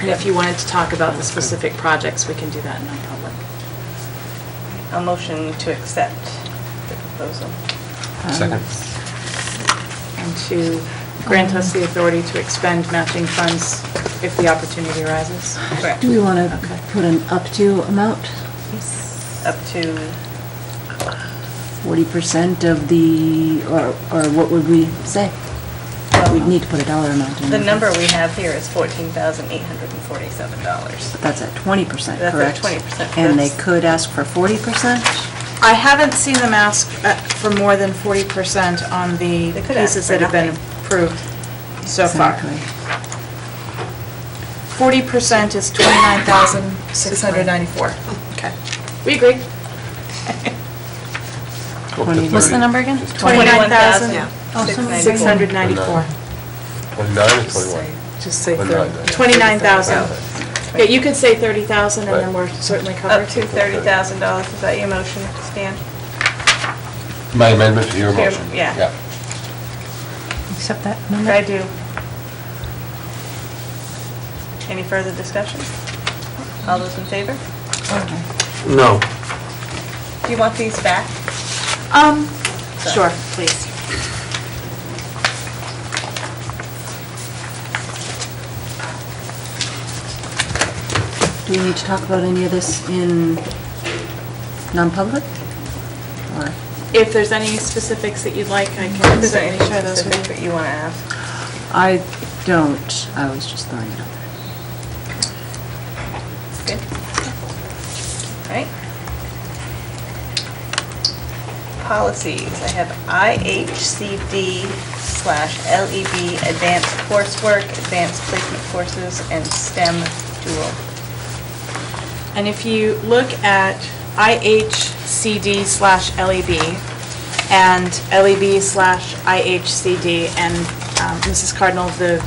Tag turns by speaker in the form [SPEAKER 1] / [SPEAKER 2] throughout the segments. [SPEAKER 1] And if you wanted to talk about the specific projects, we can do that in non-public.
[SPEAKER 2] A motion to accept the proposal.
[SPEAKER 1] Um,
[SPEAKER 3] Second.
[SPEAKER 1] And to grant us the authority to expend matching funds if the opportunity arises.
[SPEAKER 2] Correct.
[SPEAKER 4] Do we want
[SPEAKER 1] Okay.
[SPEAKER 4] to put an up to amount?
[SPEAKER 2] Up to,
[SPEAKER 4] Forty percent of the, or, or what would we say? We'd need to put a dollar amount in.
[SPEAKER 2] the
[SPEAKER 4] there.
[SPEAKER 2] number we have here is $14,847.
[SPEAKER 4] But that's at twenty percent,
[SPEAKER 2] That's at
[SPEAKER 4] correct?
[SPEAKER 2] 20%,
[SPEAKER 4] And they
[SPEAKER 2] that's-
[SPEAKER 4] could ask for forty percent?
[SPEAKER 1] I haven't seen them ask uh, for more than 40% on the
[SPEAKER 2] They could ask
[SPEAKER 1] pieces
[SPEAKER 2] for
[SPEAKER 1] that have been
[SPEAKER 2] nothing.
[SPEAKER 1] approved so far.
[SPEAKER 4] Exactly.
[SPEAKER 1] 40% is 29,694. Okay. We agree.
[SPEAKER 3] Go up to
[SPEAKER 4] Twenty- what's the
[SPEAKER 3] 30.
[SPEAKER 4] number again?
[SPEAKER 3] Just
[SPEAKER 4] Twenty-
[SPEAKER 2] 21,694.
[SPEAKER 1] 694.
[SPEAKER 3] 29 or 21?
[SPEAKER 1] Just say
[SPEAKER 3] Well, no, I
[SPEAKER 1] 30
[SPEAKER 3] don't.
[SPEAKER 1] 29,000.
[SPEAKER 2] Okay.
[SPEAKER 1] Yeah, you could say 30,000 and then
[SPEAKER 3] Right.
[SPEAKER 1] we're certainly
[SPEAKER 2] Up
[SPEAKER 1] covered.
[SPEAKER 2] to $30,000, is that your motion, Stan?
[SPEAKER 3] My amendment to your
[SPEAKER 2] Your-
[SPEAKER 3] motion.
[SPEAKER 2] yeah.
[SPEAKER 5] Accept that
[SPEAKER 2] I
[SPEAKER 5] amendment?
[SPEAKER 2] do. Any further discussion? All those in favor?
[SPEAKER 3] No.
[SPEAKER 2] Do you want these back?
[SPEAKER 1] Um, sure, please.
[SPEAKER 4] Do we need to talk about any of this in non-public? Or,
[SPEAKER 1] If there's any specifics that you'd like, I can
[SPEAKER 2] Is there
[SPEAKER 1] certainly
[SPEAKER 2] anything
[SPEAKER 1] share those
[SPEAKER 2] specific
[SPEAKER 1] with you.
[SPEAKER 2] that you want to ask?
[SPEAKER 4] I don't, I was just throwing it out there.
[SPEAKER 2] Good. All right. Policies, I have IHCD slash LEB, advanced coursework, advanced placement courses, and STEM dual.
[SPEAKER 1] And if you look at IHCD slash LEB and LEB slash IHCD, and um, Mrs. Cardinal, the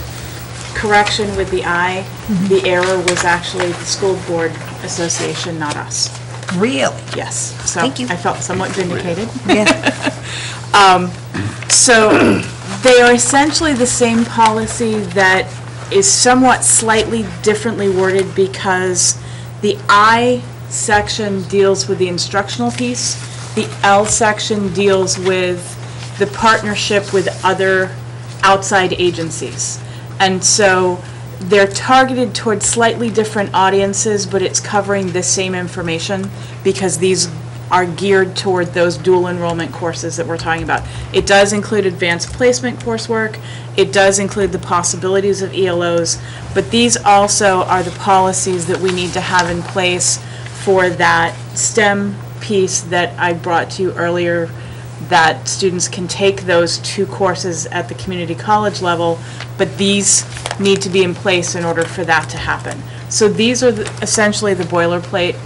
[SPEAKER 1] correction with the I, the error was actually the School Board Association, not us.
[SPEAKER 5] Really?
[SPEAKER 1] Yes.
[SPEAKER 5] Thank you.
[SPEAKER 1] So I felt somewhat vindicated. Um,
[SPEAKER 5] Yeah.
[SPEAKER 1] So they are essentially the same policy that is somewhat slightly differently worded because the I section deals with the instructional piece, the L section deals with the partnership with other outside agencies. And so they're targeted towards slightly different audiences, but it's covering the same information because these are geared toward those dual enrollment courses that we're talking about. It does include advanced placement coursework, it does include the possibilities of ELOs, but these also are the policies that we need to have in place for that STEM piece that I brought to you earlier, that students can take those two courses at the community college level, but these need to be in place in order for that to happen. So these are the- essentially the boilerplate.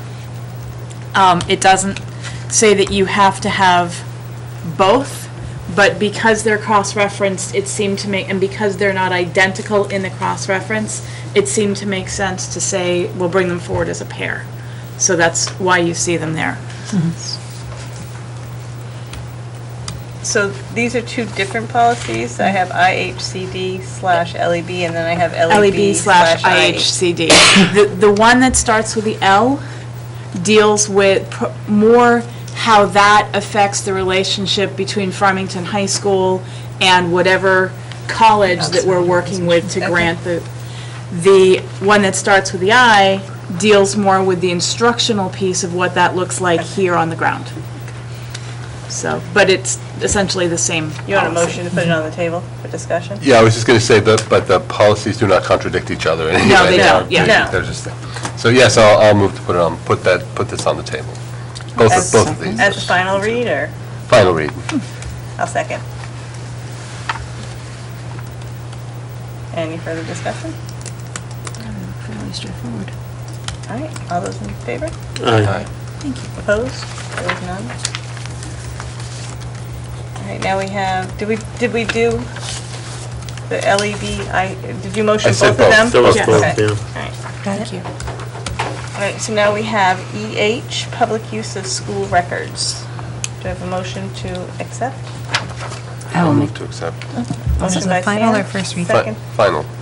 [SPEAKER 1] Um, It doesn't say that you have to have both, but because they're cross-referenced, it seemed to make, and because they're not identical in the cross-reference, it seemed to make sense to say, we'll bring them forward as a pair. So that's why you see them there.
[SPEAKER 2] So these are two different policies. I have IHCD slash LEB, and then I have E
[SPEAKER 1] LEB E slash
[SPEAKER 2] IH.
[SPEAKER 1] IHCD. The, the one that starts with the L deals with pr- more how that affects the relationship between Farmington High School and whatever college that we're working with to
[SPEAKER 2] Okay.
[SPEAKER 1] grant the, the one that starts with the I deals more with the instructional piece of what that looks like here on the ground. So, but it's essentially the same
[SPEAKER 2] You want a
[SPEAKER 1] policy.
[SPEAKER 2] motion to put it on the table for discussion?
[SPEAKER 3] Yeah, I was just going to say, but, but the policies do not contradict each other in any
[SPEAKER 1] No,
[SPEAKER 3] way.
[SPEAKER 1] they don't, yeah.
[SPEAKER 3] They're-
[SPEAKER 2] No.
[SPEAKER 3] They're just, so yes, I'll, I'll move to put it on, put that, put this on the table. Both, of
[SPEAKER 2] As-
[SPEAKER 3] both of these.
[SPEAKER 2] As the final reader.
[SPEAKER 3] Final read.
[SPEAKER 2] I'll second. Any further discussion?
[SPEAKER 4] Fairly straightforward.
[SPEAKER 2] All right, all those in favor?
[SPEAKER 3] Aye.
[SPEAKER 2] Opposed? There was none? All right, now we have, did we, did we do the LEB, I, did you motion
[SPEAKER 3] I
[SPEAKER 2] both of
[SPEAKER 3] said
[SPEAKER 2] them?
[SPEAKER 3] both. There
[SPEAKER 1] was Yes. both,
[SPEAKER 2] Okay.
[SPEAKER 6] yeah.
[SPEAKER 2] All right.
[SPEAKER 5] Thank you.
[SPEAKER 2] All right, so now we have EH, public use of school records. Do I have a motion to accept?
[SPEAKER 4] I will
[SPEAKER 3] I'll
[SPEAKER 4] make Oh,
[SPEAKER 3] move to accept.
[SPEAKER 2] Motion
[SPEAKER 5] This is
[SPEAKER 2] by
[SPEAKER 5] the final
[SPEAKER 2] Stan,
[SPEAKER 5] or first read?
[SPEAKER 3] Fi-
[SPEAKER 2] Second.
[SPEAKER 3] Final.